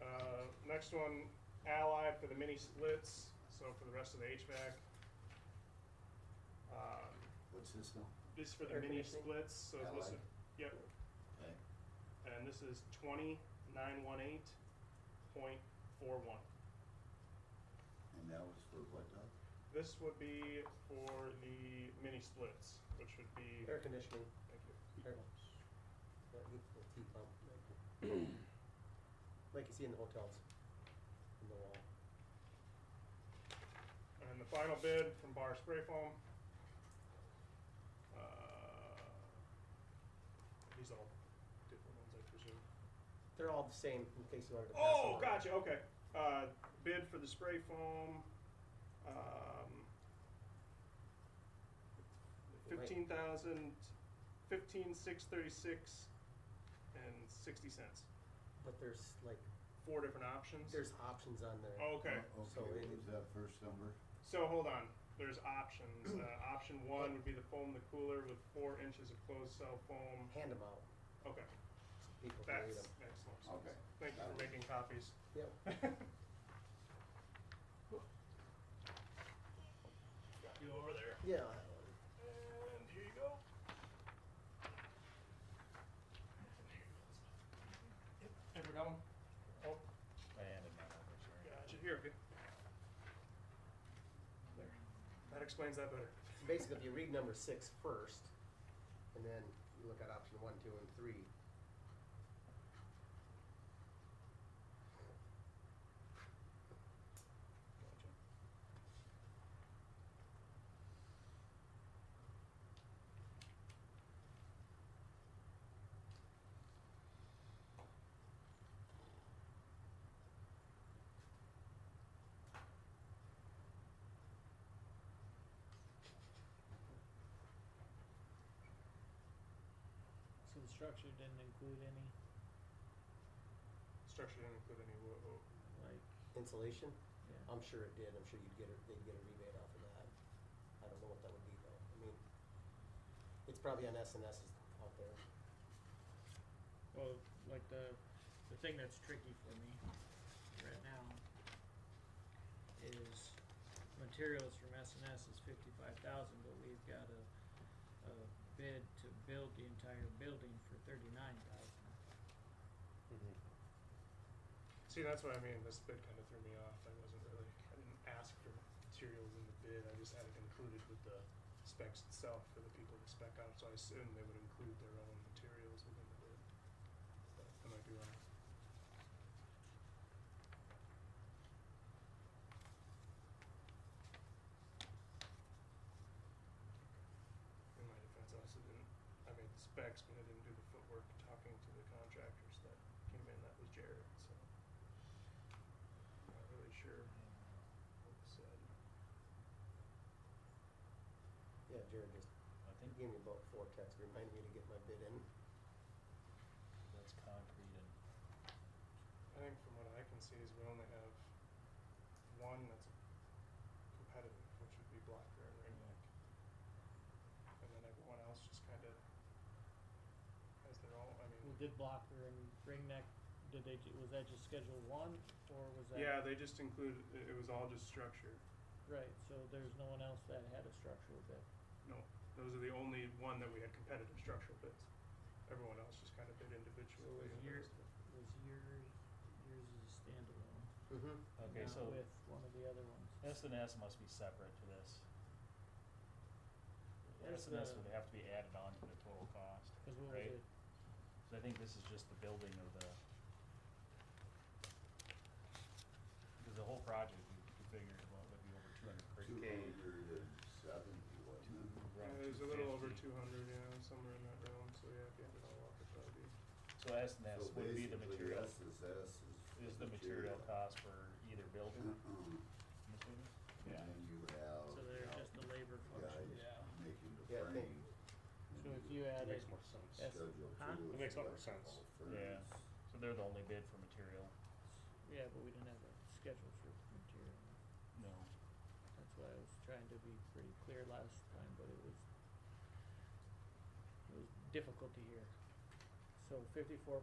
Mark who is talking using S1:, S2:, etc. S1: Uh, Next one, Allied for the mini splits, so for the rest of the HVAC. Um,
S2: What's this now?
S1: This is for the
S3: Air
S1: mini
S3: conditioning.
S1: splits, so it's
S2: Allied.
S1: listed, yep,
S2: Okay.
S1: and this is twenty nine one eight point four one.
S2: And that was for what, Doug?
S1: This would be for the mini splits, which would be,
S3: Air conditioning.
S1: thank you.
S3: Air- That heat- that heat pump, like- Like you see in the hotels, in the wall.
S1: And the final bid from Bar Spray Foam. Uh, These all different ones, I presume.
S3: They're all the same, in case you wanted to pass them
S1: Oh,
S3: on.
S1: gotcha, okay. Uh, Bid for the spray foam, um, fifteen thousand, fifteen, six thirty-six and sixty cents.
S3: But there's like,
S1: Four different options.
S3: there's options on there.
S1: Okay,
S2: Oh,
S3: So
S2: Okay,
S3: it-
S2: what was that first number?
S1: so hold on, there's options. Uh, Option one would be the foam, the cooler with four inches of closed cell foam.
S3: Hand them out,
S1: Okay,
S3: so people can read
S1: that's
S3: them.
S1: excellent.
S2: Okay.
S1: Thank you for making copies.
S3: Yep.
S1: Got you over there.
S3: Yeah, that one.
S1: And here you go. Yep, Ever got one? Oh,
S4: I handed mine over, sorry.
S1: gotcha, here, okay. There, that explains that better.
S3: So basically, if you read number six first, and then you look at option one, two, and three.
S4: Gotcha. So the structure didn't include any,
S1: Structure didn't include any wood, oh,
S4: like,
S3: Insulation,
S4: yeah.
S3: I'm sure it did, I'm sure you'd get, a- they'd get a rebate off of that. I don't know what that would be though, I mean, it's probably on S and S's out there.
S4: Well, like the the thing that's tricky for me right now is materials from S and S is fifty five thousand, but we've got a a bid to build the entire building for thirty nine thousand.
S1: See, that's what I mean. This bid kind of threw me off. I wasn't really, I didn't ask for materials in the bid. I just had it included with the specs itself for the people to spec out. So I assumed they would include their own materials within the bid. But I might be wrong. In my defense, I also didn't, I made the specs, but I didn't do the footwork talking to the contractors that came in. That was Jared, so. Not really sure what was said.
S3: Yeah, Jared just
S5: I
S3: He
S5: think
S3: gave me about four texts, reminded me to get my bid in.
S5: that's concrete and
S1: I think from what I can see is we only have one that's competitive, which would be Black Bear and Ring Neck. And then everyone else just kind of has their own, I
S4: Well,
S1: mean.
S4: did Blocker and Ring Neck, did they, ju- was that just schedule one or was that?
S1: Yeah, they just included, it it was all just structure.
S4: Right, so there's no one else that had a structural bid.
S1: No, those are the only one that we had competitive structural bids. Everyone else just kind of bid
S4: So
S1: individually.
S4: was
S1: and
S4: your,
S1: those-
S4: was your, yours is a standalone?
S3: Mm-hmm.
S5: okay.
S4: not
S5: so
S4: with one of the other ones.
S5: S and S must be separate to this.
S4: Where's
S5: S and S
S4: the-
S5: would have to be added on to the total cost,
S4: Because what was
S5: right?
S4: it?
S5: So I think this is just the building of the. Because the whole project, we we figured, well, would be over two hundred
S2: Two
S5: crazy.
S2: hundred and seventy, wasn't it?
S1: Yeah, There's a little over two hundred, yeah, somewhere in that realm, so yeah, if you had it all up, it'd probably be.
S5: So S and S
S2: So
S5: would be the
S2: basically,
S5: material,
S2: S is S is.
S5: is the material cost for either building.
S2: Uh-uh.
S5: I'm assuming?
S2: And
S5: Yeah.
S2: then you have.
S4: So they're just the labor
S2: Guys
S4: function.
S5: Yeah.
S2: making the
S3: Yeah, I think-
S2: frame. and
S4: So if
S2: the
S4: you added,
S6: Makes more sense.
S4: Yes.
S2: schedule
S4: Huh?
S2: too,
S6: It makes a lot more
S2: electrical
S6: sense.
S2: furnace.
S5: Yeah. So they're the only bid for material?
S4: yeah, but we didn't have a schedule for material.
S5: No.
S4: That's why I was trying to be pretty clear last time, but it was, it was difficult to hear. So fifty-four